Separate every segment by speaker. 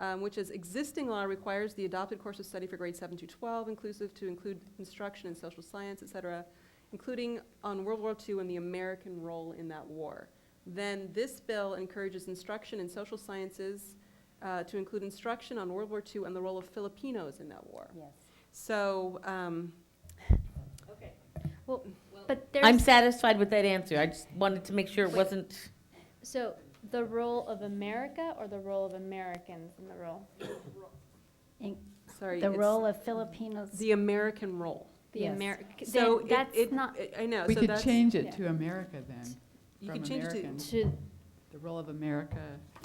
Speaker 1: um, which is existing law requires the adopted course of study for grades seven to twelve inclusive to include instruction in social science, et cetera, including on World War II and the American role in that war. Then this bill encourages instruction in social sciences uh, to include instruction on World War II and the role of Filipinos in that war.
Speaker 2: Yes.
Speaker 1: So, um,
Speaker 3: Okay.
Speaker 2: Well,
Speaker 3: Well,
Speaker 2: but
Speaker 4: I'm
Speaker 2: there's,
Speaker 4: satisfied with that answer. I just wanted to make sure it
Speaker 2: Wait.
Speaker 4: wasn't,
Speaker 2: so the role of America or the role of Americans in the role?
Speaker 1: sorry.
Speaker 5: The
Speaker 1: it's
Speaker 5: role of Filipinos,
Speaker 1: The American role.
Speaker 2: The
Speaker 5: Yes.
Speaker 2: Americ,
Speaker 1: So
Speaker 2: then
Speaker 1: it-
Speaker 2: that's
Speaker 1: it-
Speaker 2: not,
Speaker 1: it- I know,
Speaker 6: We
Speaker 1: Uh, so
Speaker 6: could
Speaker 1: that's,
Speaker 6: change
Speaker 2: yeah.
Speaker 6: it to America then,
Speaker 1: you
Speaker 6: from
Speaker 1: could change it
Speaker 6: American.
Speaker 1: to,
Speaker 2: to,
Speaker 6: the role of America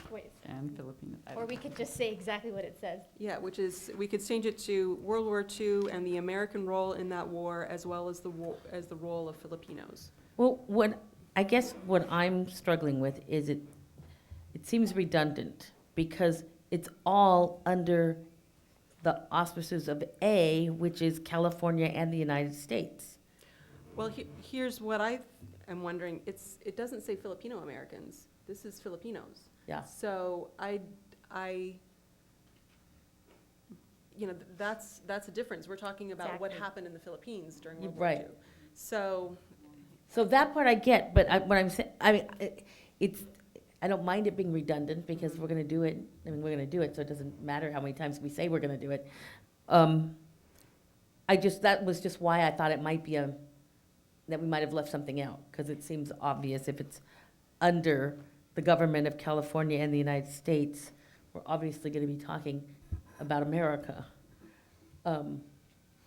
Speaker 2: wait,
Speaker 6: and Filipino. I
Speaker 2: or
Speaker 6: don't
Speaker 2: we
Speaker 6: know.
Speaker 2: could just say exactly what it says.
Speaker 1: yeah, which is, we could change it to World War II and the American role in that war as well as the war, as the role of Filipinos.
Speaker 4: well, what, I guess what I'm struggling with is it, it seems redundant because it's all under the auspices of A, which is California and the United States.
Speaker 1: Well, he- here's what I am wondering, it's, it doesn't say Filipino Americans, this is Filipinos.
Speaker 4: Yeah.
Speaker 1: So I, I, you know, th- that's, that's a difference, we're talking about what
Speaker 2: Exactly.
Speaker 1: happened in the Philippines during
Speaker 4: You're
Speaker 1: World War II.
Speaker 4: right.
Speaker 1: So,
Speaker 4: So that part I get, but I, what I'm saying, I mean, I- it's, I don't mind it being redundant because we're gonna do it, I mean, we're gonna do it, so it doesn't matter how many times we say we're gonna do it. Um, I just, that was just why I thought it might be a, that we might have left something out, because it seems obvious if it's under the government of California and the United States, we're obviously gonna be talking about America. Um,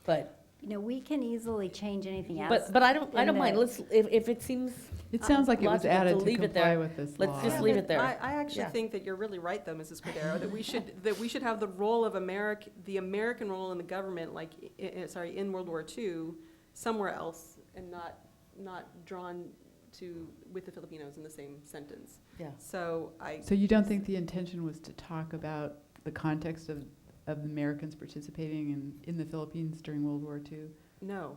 Speaker 4: But,
Speaker 5: you know, we can easily change anything else.
Speaker 4: but, but I don't, I don't mind,
Speaker 5: Then, uh,
Speaker 4: let's, if, if it seems
Speaker 6: It sounds like it was
Speaker 4: logical to
Speaker 6: added to
Speaker 4: leave it there.
Speaker 6: comply with this law.
Speaker 4: Let's just
Speaker 1: Yeah,
Speaker 4: leave
Speaker 1: but
Speaker 4: it there.
Speaker 1: I, I actually
Speaker 4: Yeah.
Speaker 1: think that you're really right, though, Mrs. Cordero, that we should, that we should have the role of Americ, the American role in the government, like, i- i- sorry, in World War II, somewhere else, and not, not drawn to, with the Filipinos in the same sentence.
Speaker 4: Yeah.
Speaker 1: So I,
Speaker 6: So you don't think the intention was to talk about the context of, of Americans participating in, in the Philippines during World War II?
Speaker 1: no,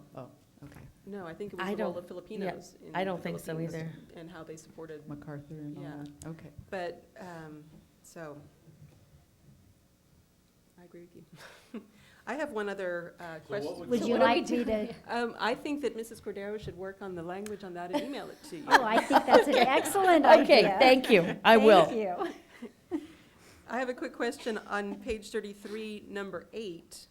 Speaker 6: Okay,
Speaker 1: no, I think it
Speaker 4: I
Speaker 1: was the role
Speaker 4: don't-
Speaker 1: of Filipinos in
Speaker 4: I
Speaker 1: the
Speaker 4: don't think so
Speaker 1: Philippines
Speaker 4: either.
Speaker 1: And how they supported,
Speaker 6: MacArthur and all
Speaker 1: Yeah.
Speaker 6: that, okay.
Speaker 1: but, um, so, I agree with you. I have one other, uh, question.
Speaker 5: Would
Speaker 2: So
Speaker 5: you
Speaker 2: what do we
Speaker 5: like me
Speaker 2: do?
Speaker 5: to,
Speaker 1: Um, I think that Mrs. Cordero should work on the language on that and email it to you.
Speaker 5: oh, I think that's an excellent idea.
Speaker 4: Okay, thank you, I
Speaker 5: Thank
Speaker 4: will.
Speaker 5: you.
Speaker 1: I have a quick question on page thirty-three, number eight.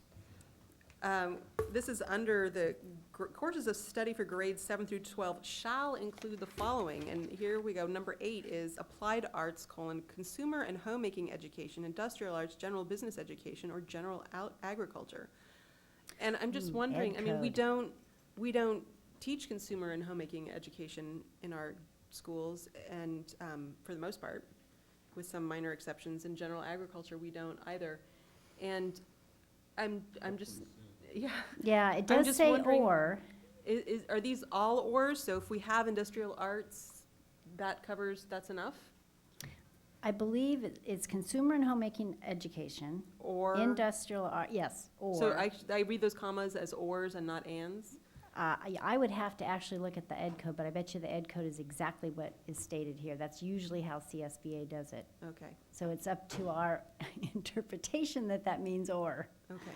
Speaker 1: Um, this is under the gr- courses of study for grades seven through twelve shall include the following, and here we go. Number eight is applied arts, colon, consumer and homemaking education, industrial arts, general business education, or general out agriculture. And I'm just
Speaker 4: Hmm,
Speaker 1: wondering,
Speaker 4: ed
Speaker 1: I mean, we
Speaker 4: code.
Speaker 1: don't, we don't teach consumer and homemaking education in our schools and, um, for the most part, with some minor exceptions. In general agriculture, we don't either. And I'm, I'm just, yeah,
Speaker 5: Yeah, it
Speaker 1: I'm
Speaker 5: does
Speaker 1: just
Speaker 5: say
Speaker 1: wondering-
Speaker 5: or,
Speaker 1: is, is, are these all ors? So if we have industrial arts, that covers, that's enough?
Speaker 5: I believe it- it's consumer and homemaking education,
Speaker 1: Or,
Speaker 5: industrial, ar- yes,
Speaker 1: so
Speaker 5: or.
Speaker 1: I, sh- I read those commas as ors and not ands?
Speaker 5: Uh, I, I would have to actually look at the ed code, but I bet you the ed code is exactly what is stated here. That's usually how CSBA does it.
Speaker 1: Okay,
Speaker 5: So it's up to our interpretation that that means or.
Speaker 1: okay.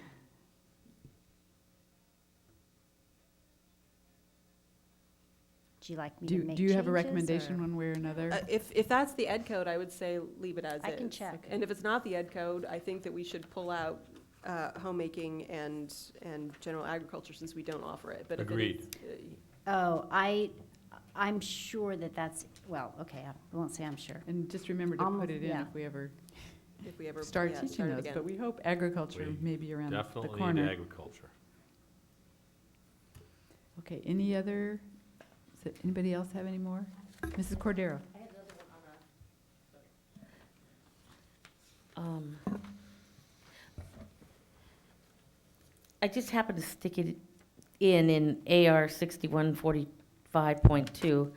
Speaker 5: Do you like me
Speaker 6: Do,
Speaker 5: to make
Speaker 6: do you have a
Speaker 5: changes,
Speaker 6: recommendation
Speaker 5: or-
Speaker 6: one way or another?
Speaker 1: Uh, If, if that's the ed code, I would say leave it as is.
Speaker 5: I can check.
Speaker 1: And if it's not the ed code, I think that we should pull out uh, homemaking and, and general agriculture since we don't offer it. But if it is- uh,
Speaker 5: Oh, I, I'm sure that that's, well, okay, I won't say I'm sure.
Speaker 6: And just remember to
Speaker 5: Almost-
Speaker 6: put it in
Speaker 5: yeah.
Speaker 6: if we ever
Speaker 1: uh, If we ever.
Speaker 6: start
Speaker 1: yeah,
Speaker 6: teaching
Speaker 1: it
Speaker 6: those,
Speaker 1: again.
Speaker 6: but we hope agriculture
Speaker 7: We
Speaker 6: may be around the
Speaker 7: Definitely need
Speaker 6: corner.
Speaker 7: agriculture.
Speaker 6: Okay, any other, does anybody else have any more? Mrs. Cordero?
Speaker 4: Um, I just happened to stick it in, in AR sixty-one forty-five point two,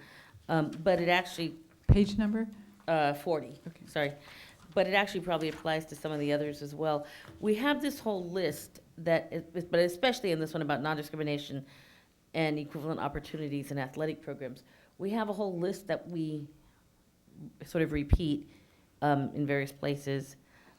Speaker 4: um, but it actually,
Speaker 6: Page number?
Speaker 4: uh, forty,
Speaker 6: Okay.
Speaker 4: sorry. But it actually probably applies to some of the others as well. We have this whole list that, is- but especially in this one about non-discrimination and equivalent opportunities in athletic programs. We have a whole list that we sort of repeat um, in various places.